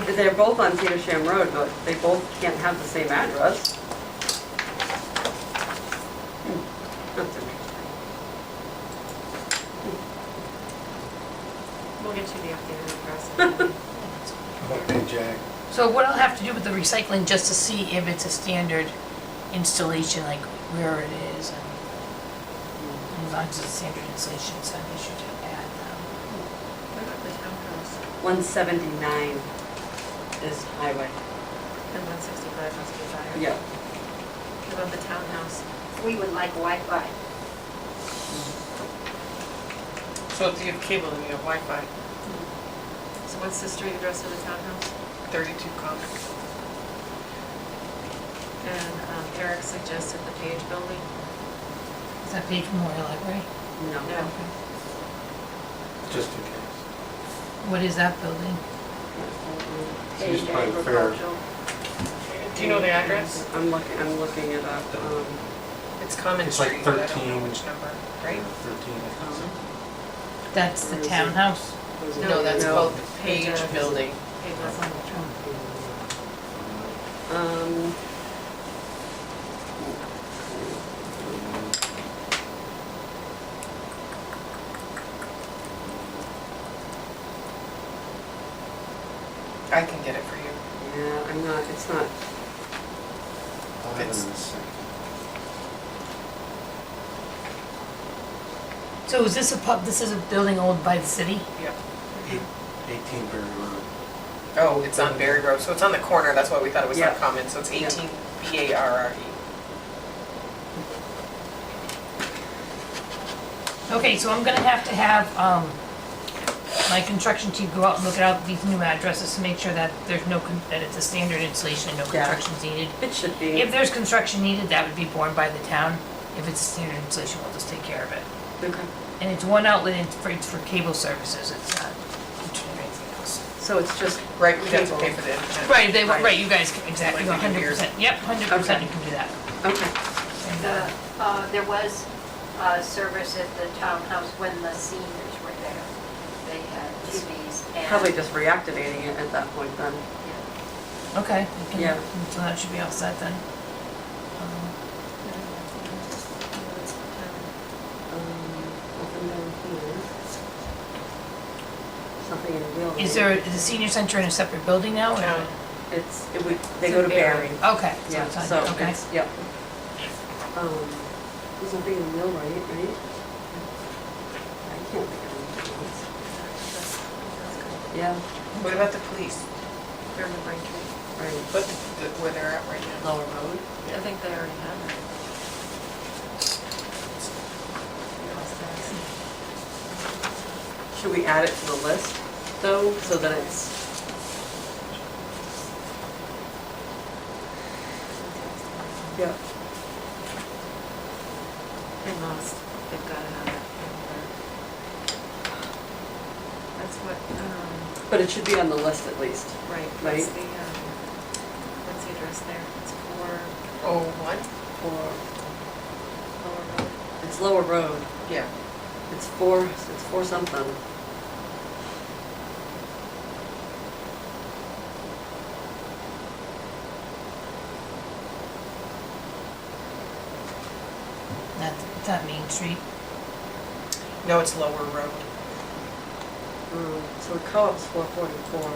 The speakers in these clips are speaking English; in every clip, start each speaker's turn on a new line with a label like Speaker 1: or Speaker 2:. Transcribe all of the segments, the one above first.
Speaker 1: They're both on Petersham Road, but they both can't have the same address. Hmm, That's interesting.
Speaker 2: We'll get you the updated address.
Speaker 3: Okay, Jack.
Speaker 4: So what I'll have to do with the recycling, just to see if it's a standard installation, like where it is, and as long as it's standard installation, so they should add them.
Speaker 2: What about the townhouse
Speaker 1: 179 is highway.
Speaker 2: and one sixty-five must be fire?
Speaker 1: Yeah.
Speaker 2: What about the townhouse?
Speaker 5: We would like Wi-Fi.
Speaker 6: So if you have cable, then you have Wi-Fi,
Speaker 2: So what's the street address of the townhouse?
Speaker 6: 32 Common.
Speaker 2: And um, Eric suggested the Page Building.
Speaker 4: Is that Page Memorial Library?
Speaker 1: No.
Speaker 2: No.
Speaker 3: Just in case.
Speaker 4: What is that building?
Speaker 3: It's used by the fair.
Speaker 1: Agricultural.
Speaker 6: Do you know the address?
Speaker 1: I'm looking, I'm looking it up. um,
Speaker 6: It's Common
Speaker 3: It's like
Speaker 6: Street, but I don't know
Speaker 3: 13.
Speaker 6: which number, right?
Speaker 3: Thirteen,
Speaker 1: Um,
Speaker 3: I think.
Speaker 4: That's the townhouse.
Speaker 6: No, that's
Speaker 1: No.
Speaker 6: called the Page
Speaker 2: Page.
Speaker 6: Building.
Speaker 2: Page Building.
Speaker 1: Um,
Speaker 6: I can get it for you.
Speaker 1: yeah, I'm not, it's not,
Speaker 3: I'll have it in a
Speaker 6: It's-
Speaker 3: second.
Speaker 4: So is this a pub, this is a building owned by the city?
Speaker 6: Yep.
Speaker 3: Eighteen Berry Road.
Speaker 6: Oh, it's on Berry Road, so it's on the corner, that's why we thought it was on
Speaker 1: Yeah.
Speaker 6: Common, so it's
Speaker 1: Yeah.
Speaker 6: 18 B-A-R-R-E.
Speaker 4: Okay, so I'm gonna have to have, um, my construction team go out and look at all these new addresses to make sure that there's no, con- that it's a standard installation and no
Speaker 1: Yeah.
Speaker 4: construction's needed.
Speaker 1: it should be.
Speaker 4: If there's construction needed, that would be borne by the town. If it's a standard installation, we'll just take care of it.
Speaker 1: Okay.
Speaker 4: And it's one outlet, and it's for, it's for cable services, it's not internet or anything else.
Speaker 1: So it's just.
Speaker 6: Right, we have to pay
Speaker 1: cable.
Speaker 6: for the internet.
Speaker 4: Right, they, right, you guys, can- exactly,
Speaker 6: Like we can
Speaker 4: hundred
Speaker 6: do yours.
Speaker 4: percent, yep, hundred percent, you can do that.
Speaker 1: Okay.
Speaker 4: And,
Speaker 5: The,
Speaker 4: uh,
Speaker 5: uh, There was uh, service at the townhouse when the seniors were there. They had TVs and...
Speaker 1: Probably just reactivating it at that point then.
Speaker 5: Yeah.
Speaker 4: Okay, we can-
Speaker 1: Yeah.
Speaker 4: so that should be all set then. Um,
Speaker 1: um, Nothing down here. Something in the building.
Speaker 4: Um, Is there, is the senior center in a separate building now? or-
Speaker 6: No.
Speaker 1: It's, it would, they go to
Speaker 2: It's in Barry.
Speaker 1: Barry.
Speaker 4: Okay, so
Speaker 1: Yeah,
Speaker 4: Oh, it's on-
Speaker 1: so
Speaker 4: okay.
Speaker 1: it's, yep. Um, There's nothing in the mill, right, right? I can't think of anything else. Yeah,
Speaker 6: What about the police?
Speaker 2: Urban Braintree.
Speaker 1: right.
Speaker 6: What, the- the- where they're at right now?
Speaker 1: Lower Road?
Speaker 2: I think they already have it.
Speaker 1: Should we add it to the list though, so that it's, yeah,
Speaker 2: They must, they've got to have it. That's what, um,
Speaker 1: but it should be on the list at least.
Speaker 2: right,
Speaker 1: Right.
Speaker 2: what's the, um, what's the address there? It's for
Speaker 6: Oh, one?
Speaker 1: Or,
Speaker 2: Lower Road.
Speaker 1: it's Lower Road.
Speaker 6: Yeah.
Speaker 1: It's four, it's four something.
Speaker 4: That, that Main Street,
Speaker 6: No, it's Lower Road.
Speaker 1: Um, So the co-op's four forty-four. Mm,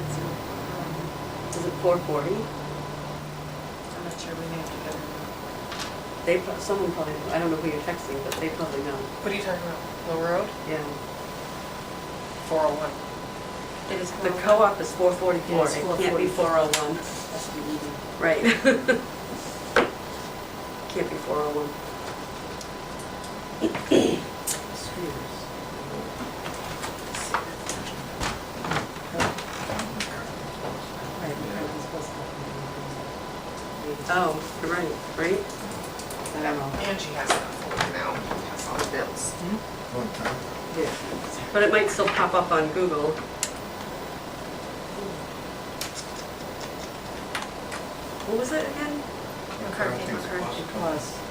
Speaker 2: It's, um,
Speaker 1: Is it four forty?
Speaker 2: I'm not sure we may have to get it.
Speaker 1: They, pro- someone probably, I don't know who you're texting, but they probably know,
Speaker 6: What are you talking about? Lower Road?
Speaker 1: yeah.
Speaker 6: 401.
Speaker 2: It is
Speaker 1: The
Speaker 2: for-
Speaker 1: co-op is four forty-four,
Speaker 2: Yes,
Speaker 1: it can't be four oh one. Right. Can't be four oh one. Oh, you're right, right? I don't know.
Speaker 6: And she has it on folder now, has all the bills.
Speaker 1: But it might still pop up on Google. What was it again?
Speaker 2: McCarthy, McCarthy.
Speaker 1: It was.